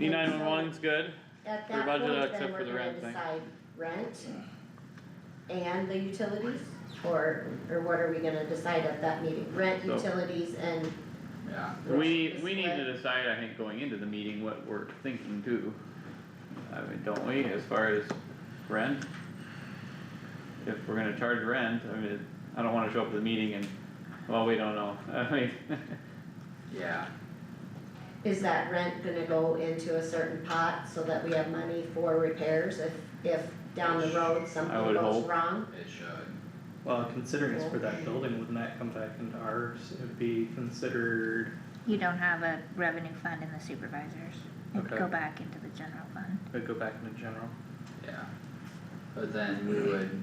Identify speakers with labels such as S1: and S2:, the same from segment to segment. S1: E nine one one's good,
S2: At
S1: Your
S2: that
S1: budget,
S2: point,
S1: except for
S2: then
S1: the
S2: we're gonna
S1: rent thing.
S2: decide rent and the utilities, or, or what are we gonna decide at that meeting? Rent,
S1: So-
S2: utilities, and,
S3: yeah,
S1: we,
S2: Just
S1: we need to
S2: what-
S1: decide, I think, going into the meeting what we're thinking too. I mean, don't we, as far as rent? If we're gonna charge rent, I mean, I don't wanna show up to the meeting and, well, we don't know, I mean,
S3: yeah,
S2: is that rent gonna go into a certain pot so that we have money for repairs if, if down the road something
S1: would
S2: goes
S1: hope.
S2: wrong?
S3: it should,
S4: Well, considering it's for that building, wouldn't that come back into ours? It'd be considered,
S5: You don't have a revenue fund in the supervisors. It'd
S4: Okay.
S5: go back into the general fund.
S4: it'd go back into general.
S3: yeah. But then we would,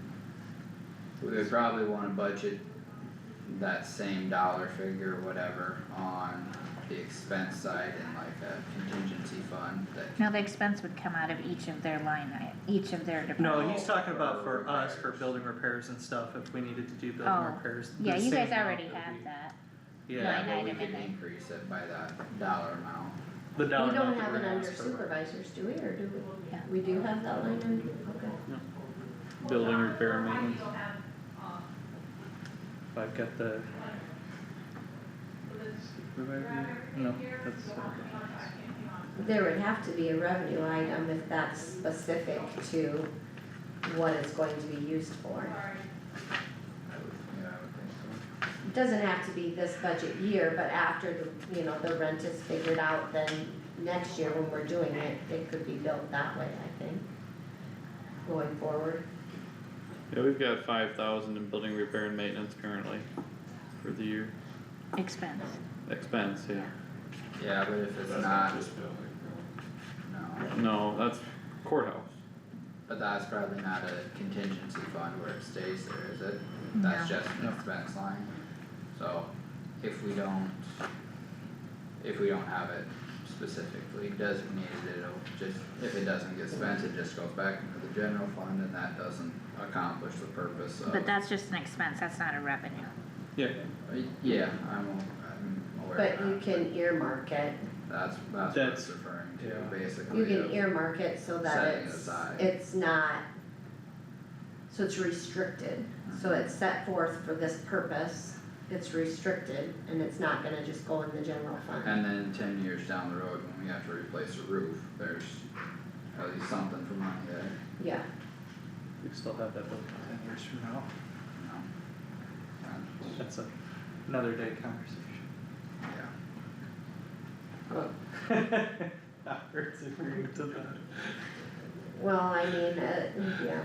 S3: we would probably wanna budget that same dollar figure, whatever, on the expense side in like a contingency fund that
S5: Now, the expense would come out of each of their line, i- each of their
S4: No,
S5: departments.
S4: he's talking about for us, for building repairs and stuff, if we needed to do building
S5: Oh,
S4: repairs. the
S5: Yeah, you
S4: same
S5: guys
S4: amount
S5: already
S4: would
S5: have
S4: be-
S5: that.
S4: Yeah,
S5: Line
S3: Yeah, but we
S5: item in
S3: could
S5: there.
S3: increase it by that dollar amount.
S4: the dollar
S2: We don't
S4: amount that
S2: have
S4: we're
S2: it
S4: gonna
S2: under
S4: ask for.
S2: supervisors, do we, or do
S5: Yeah.
S2: we? We do have that line under, okay.
S1: building repair and maintenance.
S4: I've got the. Supervisor, no, that's.
S2: There would have to be a revenue item if that's specific to what it's going to be used for.
S3: I would, yeah, I would think so.
S2: It doesn't have to be this budget year, but after the, you know, the rent is figured out, then next year when we're doing it, it could be built that way, I think. Going forward,
S1: Yeah, we've got five thousand in building repair and maintenance currently for the year,
S5: Expense.
S1: expense, yeah,
S3: Yeah, but if it's
S6: That's
S3: not,
S6: not just building, no.
S3: no,
S1: no, that's courthouse.
S3: but that's probably not a contingency fund where it stays there, is it? That's
S5: No.
S3: just an expense line, so if we don't, if we don't have it specifically designated, it'll just, if it doesn't get spent, it just goes back into the general fund and that doesn't accomplish the purpose of.
S5: But that's just an expense, that's not a revenue.
S1: Yeah.
S3: uh, Yeah, I'm, I'm aware
S2: but
S3: of that.
S2: you can earmark it,
S3: That's, that's what it's
S4: That's-
S3: referring to,
S4: yeah.
S3: basically.
S2: you can
S3: of-
S2: earmark it so that
S3: Setting
S2: it's,
S3: aside.
S2: it's not. So it's restricted, so it's set forth for this purpose, it's restricted, and it's not gonna just go in the general fund.
S3: And then ten years down the road, when we have to replace a roof, there's at least something for money there,
S2: Yeah,
S4: We still have that building ten years from now.
S3: you know?
S4: That's a, another day conversation.
S3: Yeah,
S4: Howard's agreeing to that.
S2: well, I mean, uh, yeah,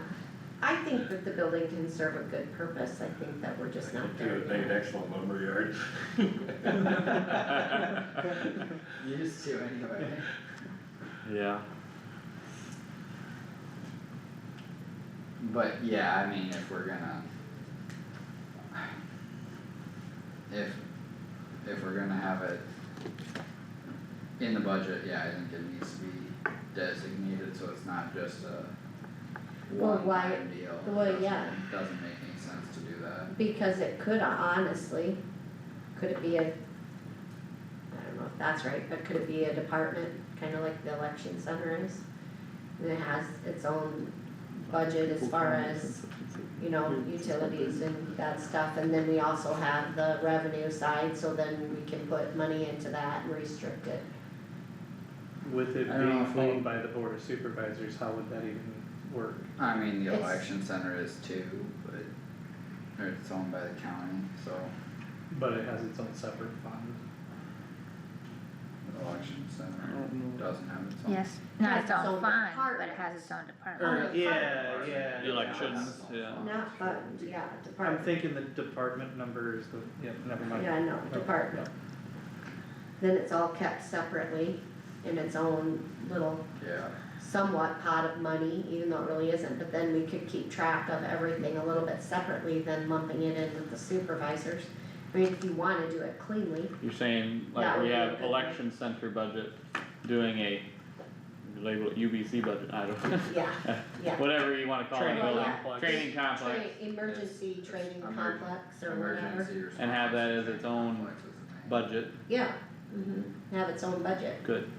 S2: I think that the building can serve a good purpose, I think that we're just not
S6: They
S2: there
S6: would make an
S2: yet.
S6: excellent lumberyard.
S3: used to anyway.
S1: Yeah.
S3: But yeah, I mean, if we're gonna. If, if we're gonna have it. In the budget, yeah, I think it needs to be designated, so it's not just a.
S2: Well, why-
S3: one-time deal,
S2: well,
S3: Doesn't-
S2: yeah.
S3: Doesn't make any sense to do that.
S2: Because it could honestly, could it be a, I don't know if that's right, but could it be a department, kinda like the election center is? And it has its own budget as far as, you know, utilities and that stuff, and then we also have the revenue side, so then we can put money into that and restrict it.
S4: With it
S3: I don't know
S4: being
S3: if
S4: owned by the board of supervisors, how would that even work?
S3: I mean, the
S2: It's-
S3: election center is too, but it's owned by the county, so
S4: But it has its own separate fund.
S3: the election center
S1: don't
S3: doesn't have its own.
S5: Yes, not
S2: Has
S5: its
S2: its
S5: own
S2: own
S5: fund, but it
S2: department.
S5: has Oh, its own department.
S4: Or,
S2: Or
S4: yeah,
S3: fund.
S4: yeah. yeah.
S1: Elections, yeah.
S2: Not fund, yeah,
S4: I'm
S2: department,
S4: thinking the department number is the, yeah, never mind.
S2: yeah, no,
S4: No,
S2: department. then it's all kept separately in its own little
S3: Yeah,
S2: somewhat pot of money, even though it really isn't, but then we could keep track of everything a little bit separately than lumping it in with the supervisors. I mean, if you wanna do it cleanly,
S1: You're saying like
S2: That
S1: we
S2: would be
S1: have
S2: good.
S1: election center budget doing a, label it UBC budget, I don't know.
S2: yeah, yeah.
S1: Whatever you wanna call it,
S4: Training
S1: building,
S4: complex.
S1: training complex,
S2: Train, emergency training
S3: Emerg-
S2: complex or whatever,
S3: emergency response.
S1: And have that as its own
S3: complex is the name.
S1: budget,
S2: yeah, mhm, have its own budget,
S1: good,